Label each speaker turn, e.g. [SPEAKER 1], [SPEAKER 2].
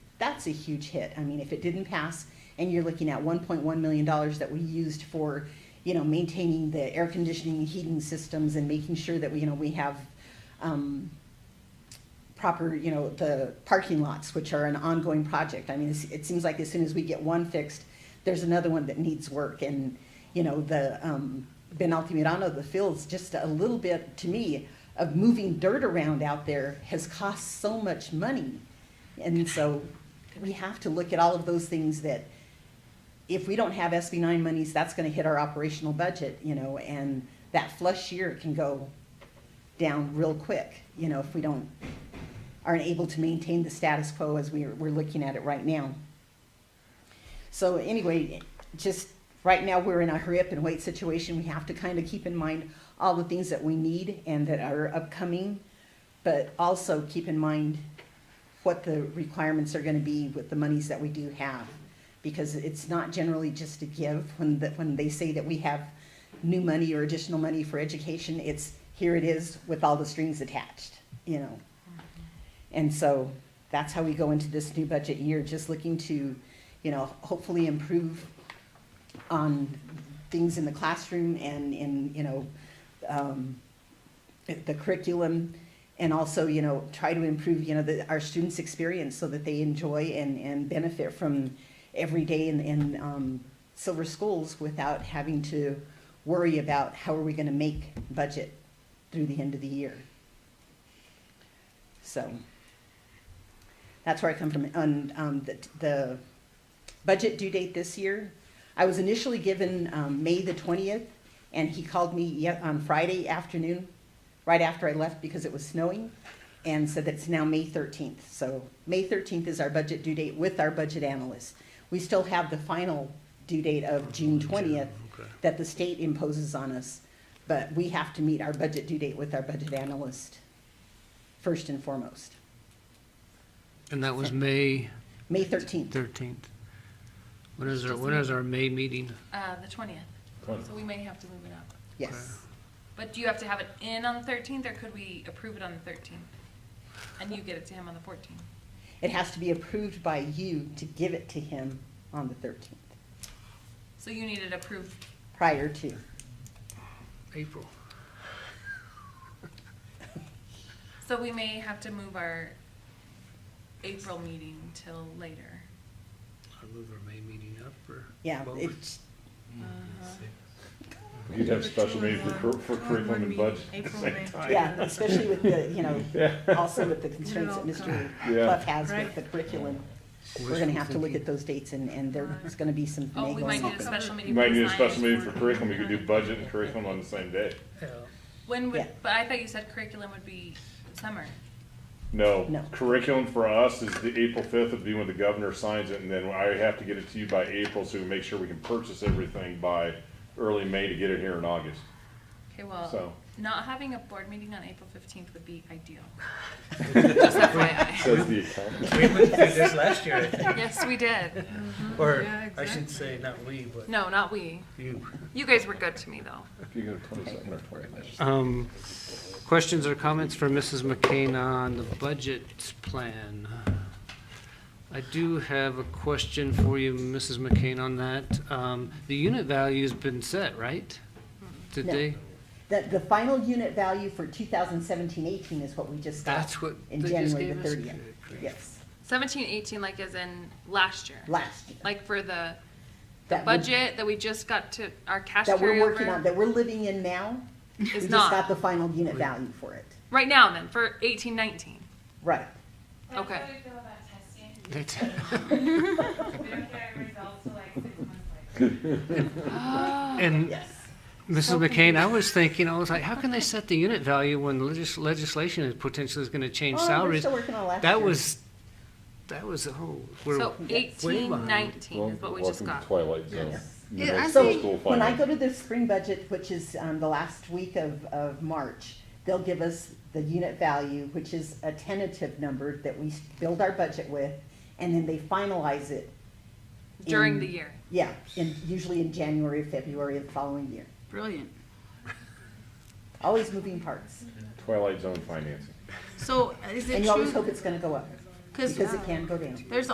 [SPEAKER 1] that's a huge hit. I mean, if it didn't pass and you're looking at one point one million dollars that we used for, you know, maintaining the air conditioning and heating systems and making sure that we, you know, we have, um, proper, you know, the parking lots, which are an ongoing project. I mean, it's- it seems like as soon as we get one fixed, there's another one that needs work. And, you know, the, um, Ben Altamirano, the fields, just a little bit, to me, of moving dirt around out there has cost so much money. And so we have to look at all of those things that, if we don't have SB nine monies, that's gonna hit our operational budget, you know, and that flush year can go down real quick, you know, if we don't, aren't able to maintain the status quo as we're, we're looking at it right now. So anyway, just, right now, we're in a hurry up and wait situation, we have to kind of keep in mind all the things that we need and that are upcoming, but also keep in mind what the requirements are gonna be with the monies that we do have. Because it's not generally just a give, when, the- when they say that we have new money or additional money for education, it's, here it is with all the strings attached, you know? And so that's how we go into this new budget year, just looking to, you know, hopefully improve on things in the classroom and in, you know, um, the curriculum. And also, you know, try to improve, you know, the, our students' experience so that they enjoy and, and benefit from every day in, in, um, Silver Schools without having to worry about how are we gonna make budget through the end of the year. So that's where I come from. On um, the, the budget due date this year, I was initially given um, May the 20th, and he called me ye- on Friday afternoon, right after I left because it was snowing, and said that it's now May 13th. So May 13th is our budget due date with our budget analyst. We still have the final due date of June 20th
[SPEAKER 2] Okay.
[SPEAKER 1] that the state imposes on us, but we have to meet our budget due date with our budget analyst first and foremost.
[SPEAKER 2] And that was May
[SPEAKER 1] May 13th.
[SPEAKER 2] thirteenth. When is our, when is our May meeting?
[SPEAKER 3] Uh, the twentieth. So we may have to move it up.
[SPEAKER 1] Yes.
[SPEAKER 3] But do you have to have it in on the thirteenth, or could we approve it on the thirteenth? And you get it to him on the fourteenth?
[SPEAKER 1] It has to be approved by you to give it to him on the 13th,
[SPEAKER 3] So you need it approved,
[SPEAKER 1] prior to.
[SPEAKER 2] April.
[SPEAKER 3] so we may have to move our April meeting till later.
[SPEAKER 2] I'll move our May meeting up or?
[SPEAKER 1] Yeah,
[SPEAKER 2] both?
[SPEAKER 1] it's,
[SPEAKER 4] You'd have special meeting for, cur- for curriculum and budget at the
[SPEAKER 5] April,
[SPEAKER 4] same
[SPEAKER 5] May.
[SPEAKER 4] time.
[SPEAKER 1] yeah, especially with the, you know, also with the constraints that
[SPEAKER 5] all
[SPEAKER 1] Mr.
[SPEAKER 4] come. Yeah.
[SPEAKER 1] Clough has with
[SPEAKER 5] Right.
[SPEAKER 1] the curriculum. We're
[SPEAKER 2] Wishful
[SPEAKER 1] gonna have to look
[SPEAKER 2] thinking.
[SPEAKER 1] at those dates and, and there's gonna be some
[SPEAKER 3] Oh, we might
[SPEAKER 1] finagling.
[SPEAKER 3] need a
[SPEAKER 1] happen.
[SPEAKER 3] special meeting.
[SPEAKER 4] You might
[SPEAKER 3] for
[SPEAKER 4] need a
[SPEAKER 3] science
[SPEAKER 4] special meeting for
[SPEAKER 3] board.
[SPEAKER 4] curriculum, you could do budget and curriculum on the same day.
[SPEAKER 2] Yeah.
[SPEAKER 3] When would,
[SPEAKER 1] Yeah.
[SPEAKER 3] but I thought you said curriculum would be summer.
[SPEAKER 1] No.
[SPEAKER 4] No, curriculum for us is the April fifth would be when the governor signs it, and then I have to get it to you by April, so we make sure we can purchase everything by early May to get it here in August.
[SPEAKER 3] Okay, well,
[SPEAKER 4] So-
[SPEAKER 3] not having a board meeting on April fifteenth would be ideal. Just FYI.
[SPEAKER 4] Says the accountant.
[SPEAKER 6] We went through this last year, I think,
[SPEAKER 3] Yes, we did.
[SPEAKER 1] Mm-hmm.
[SPEAKER 6] or
[SPEAKER 5] Yeah,
[SPEAKER 6] I should say, not we, but
[SPEAKER 3] No, not we.
[SPEAKER 6] you.
[SPEAKER 3] You guys were good to me, though.
[SPEAKER 4] If you go to 22nd or 20th.
[SPEAKER 2] Um, questions or comments for Mrs. McCain on the budget plan? I do have a question for you, Mrs. McCain, on that. Um, the unit value's been set, right? Did
[SPEAKER 1] Mm-hmm. No.
[SPEAKER 2] they?
[SPEAKER 1] The, the final unit value for 2017-18 is what we just got.
[SPEAKER 2] That's what
[SPEAKER 1] In
[SPEAKER 2] they just
[SPEAKER 1] January the
[SPEAKER 2] gave us?
[SPEAKER 1] 30th,
[SPEAKER 2] Good grief.
[SPEAKER 1] yes,
[SPEAKER 3] Seventeen, eighteen, like as in last year.
[SPEAKER 1] last year.
[SPEAKER 3] Like for the, the
[SPEAKER 1] That we-
[SPEAKER 3] budget that we just got to, our cash
[SPEAKER 1] That we're working on,
[SPEAKER 3] carryover
[SPEAKER 1] that we're living in now. We
[SPEAKER 3] is
[SPEAKER 1] just got
[SPEAKER 3] not.
[SPEAKER 1] the final unit value for it,
[SPEAKER 3] Right now then, for eighteen, nineteen.
[SPEAKER 1] right.
[SPEAKER 3] Okay.
[SPEAKER 7] How do you feel about testing?
[SPEAKER 2] They t-
[SPEAKER 7] We don't get our results till like six months later.
[SPEAKER 2] And
[SPEAKER 1] Yes.
[SPEAKER 2] Mrs. McCain, I was thinking, I was like, how can they set the unit value when legis- legislation is potentially is gonna change
[SPEAKER 1] Oh, we're
[SPEAKER 2] salaries?
[SPEAKER 1] still working on last year.
[SPEAKER 2] That was, that was, oh, we're
[SPEAKER 3] So
[SPEAKER 2] way
[SPEAKER 3] eighteen,
[SPEAKER 2] behind.
[SPEAKER 3] nineteen is what we just got.
[SPEAKER 4] Twilight Zone.
[SPEAKER 1] Yes.
[SPEAKER 4] You
[SPEAKER 2] Yeah,
[SPEAKER 4] know,
[SPEAKER 2] I
[SPEAKER 4] school
[SPEAKER 1] So when I
[SPEAKER 4] finance.
[SPEAKER 1] go to the spring budget, which is um, the last week of, of March, they'll give us the unit value, which is a tentative number that we s- build our budget with, and then they finalize it.
[SPEAKER 3] During
[SPEAKER 1] in-
[SPEAKER 3] the year.
[SPEAKER 1] Yeah, in, usually in January, or February of the following year.
[SPEAKER 5] Brilliant.
[SPEAKER 1] Always moving parts.
[SPEAKER 4] Twilight Zone financing.
[SPEAKER 5] So is
[SPEAKER 1] And
[SPEAKER 5] it
[SPEAKER 1] you always
[SPEAKER 5] true?
[SPEAKER 1] hope it's gonna go up,
[SPEAKER 5] Because
[SPEAKER 1] because it can go down.
[SPEAKER 5] there's